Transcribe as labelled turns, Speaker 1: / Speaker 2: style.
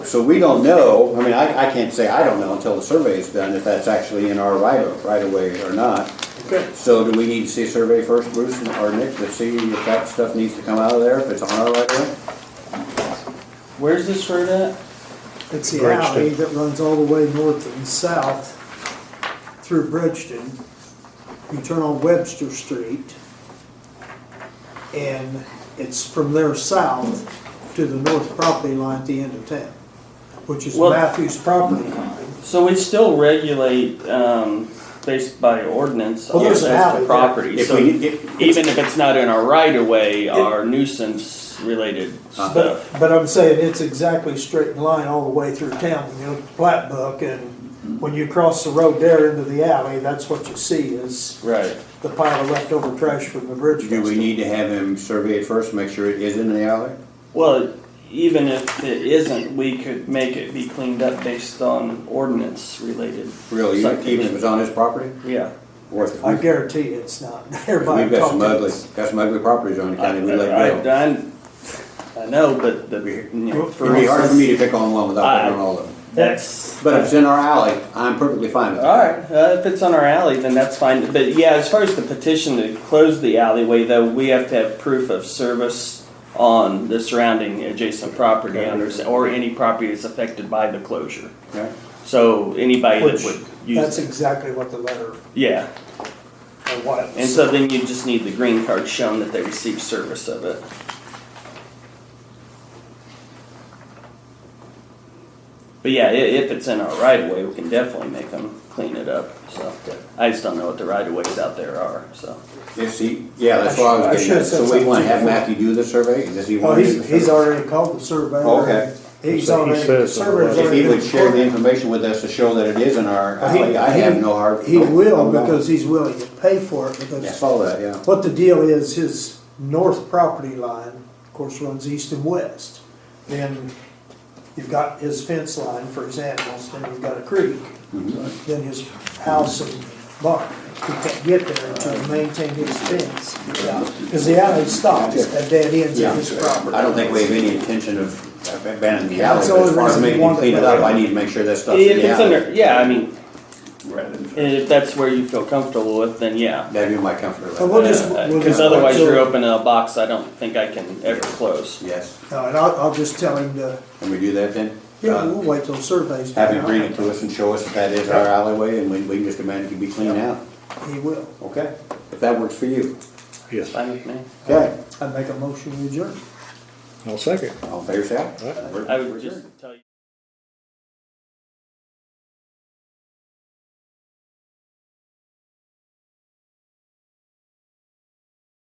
Speaker 1: So we don't know, I mean, I, I can't say I don't know until the survey is done if that's actually in our right of, right of way or not.
Speaker 2: Okay.
Speaker 1: So do we need to see a survey first, Bruce and- or Nick, to see if that stuff needs to come out of there, if it's on our right of way?
Speaker 3: Where's this road at?
Speaker 4: It's the
Speaker 2: Bridgeton.
Speaker 4: alley that runs all the way north and south through Bridgeton. You turn on Webster Street, and it's from there south to the north property line at the end of town, which is
Speaker 3: Well-
Speaker 4: Matthews property line.
Speaker 3: So we still regulate, um, based by ordinance,
Speaker 4: Well,
Speaker 3: as
Speaker 4: there's an alley
Speaker 3: the
Speaker 4: there.
Speaker 3: property,
Speaker 1: If
Speaker 3: so
Speaker 1: we, if,
Speaker 3: even if it's not in our right of way, our nuisance related
Speaker 1: Uh-huh.
Speaker 4: But,
Speaker 3: stuff.
Speaker 4: but I'm saying it's exactly straight in line all the way through town, you know, plat book, and when you cross the road there into the alley, that's what you see is
Speaker 3: Right.
Speaker 4: the pile of leftover trash from the bridge
Speaker 1: do we
Speaker 4: festival.
Speaker 1: need to have him survey it first, make sure it is in the alley?
Speaker 3: Well, even if it isn't, we could make it be cleaned up based on ordinance related.
Speaker 1: Really, even even if
Speaker 3: subdivision.
Speaker 1: it's on his property?
Speaker 3: Yeah.
Speaker 1: Worth it.
Speaker 4: I
Speaker 1: We've
Speaker 4: guarantee you it's not. Everybody
Speaker 1: got some
Speaker 4: talked to
Speaker 1: ugly,
Speaker 4: us.
Speaker 1: got some ugly properties on the
Speaker 3: I,
Speaker 1: county we let
Speaker 3: I,
Speaker 1: go.
Speaker 3: I- I know, but the, you know,
Speaker 1: It'd
Speaker 3: for
Speaker 1: be hard for me
Speaker 3: instance,
Speaker 1: to pick on one without picking on all of them.
Speaker 3: that's.
Speaker 1: But if it's in our alley, I'm perfectly fine with it.
Speaker 3: All right, uh, if it's on our alley, then that's fine. But yeah, as far as the petition to close the alleyway, though, we have to have proof of service on the surrounding adjacent property owners or any property that's affected by the closure.
Speaker 1: Okay.
Speaker 3: So anybody that
Speaker 4: Which,
Speaker 3: would
Speaker 4: That's
Speaker 3: use, it.
Speaker 4: exactly what the letter, or
Speaker 3: yeah.
Speaker 4: what
Speaker 3: And
Speaker 4: it
Speaker 3: so
Speaker 4: said.
Speaker 3: then you just need the green card shown that they received service of it. But yeah, i- if it's in our right of way, we can definitely make them clean it up, so. I just don't know what the right of ways out there are, so.
Speaker 1: If he, yeah, that's what I
Speaker 4: I
Speaker 1: was getting
Speaker 4: should've
Speaker 1: at.
Speaker 4: said
Speaker 1: So we
Speaker 4: something
Speaker 1: wanna have
Speaker 4: before.
Speaker 1: Matthew do the survey? Does he
Speaker 4: Oh,
Speaker 1: want? to do
Speaker 4: he's,
Speaker 1: the
Speaker 4: he's
Speaker 1: survey?
Speaker 4: already called the surveyor.
Speaker 1: Okay.
Speaker 4: He's
Speaker 2: So he
Speaker 4: already, the
Speaker 2: says in the
Speaker 4: surveyor's
Speaker 2: letter.
Speaker 1: If
Speaker 4: already.
Speaker 1: he would share the
Speaker 4: been-
Speaker 1: information with us to show that it is in our
Speaker 4: Well, he-
Speaker 1: alley, I have no hard.
Speaker 4: He
Speaker 1: no-
Speaker 4: will,
Speaker 1: no problem.
Speaker 4: because he's willing to pay for it,
Speaker 1: Yeah, I
Speaker 4: because
Speaker 1: saw that, yeah.
Speaker 4: what the deal is, his north property line, of course, runs east and west. Then you've got his fence line for his animals, then you've got a creek,
Speaker 1: Mm-hmm.
Speaker 4: then his house and barn. He can't get there to maintain his fence, because the alley stops at dead ends
Speaker 1: Yeah.
Speaker 4: of his property.
Speaker 1: I don't think we have any intention of abandoning the alley,
Speaker 4: That's the
Speaker 1: but as
Speaker 4: only
Speaker 1: far as
Speaker 4: reason
Speaker 1: making him
Speaker 4: we want
Speaker 1: clean
Speaker 4: it
Speaker 1: it up,
Speaker 4: there.
Speaker 1: I need to make sure that stuff's in
Speaker 3: If
Speaker 1: the
Speaker 3: it's
Speaker 1: alley.
Speaker 3: under, yeah, I mean, if that's where you feel comfortable with, then yeah.
Speaker 1: That'd be my comfort
Speaker 4: But
Speaker 1: level,
Speaker 4: we'll just. we'll
Speaker 3: Because
Speaker 4: just wait
Speaker 3: otherwise
Speaker 4: till-
Speaker 3: you're opening a box I don't think I can ever close.
Speaker 1: yes.
Speaker 4: No, Uh, and I'll, I'll just tell him to,
Speaker 1: Can we do that then?
Speaker 4: yeah,
Speaker 1: Uh,
Speaker 4: we'll wait till surveys.
Speaker 1: Have him
Speaker 4: done.
Speaker 1: bring it to us and show us if that is our alleyway, and we, we can just demand it can be cleaned out,
Speaker 4: He will.
Speaker 1: okay? If that works for you,
Speaker 2: Yes,
Speaker 3: Fine with me.
Speaker 1: okay?
Speaker 4: I make a motion to adjourn.
Speaker 2: I'll second.
Speaker 1: All in favor, say aye.
Speaker 2: Aye.
Speaker 1: We're-
Speaker 3: I would just tell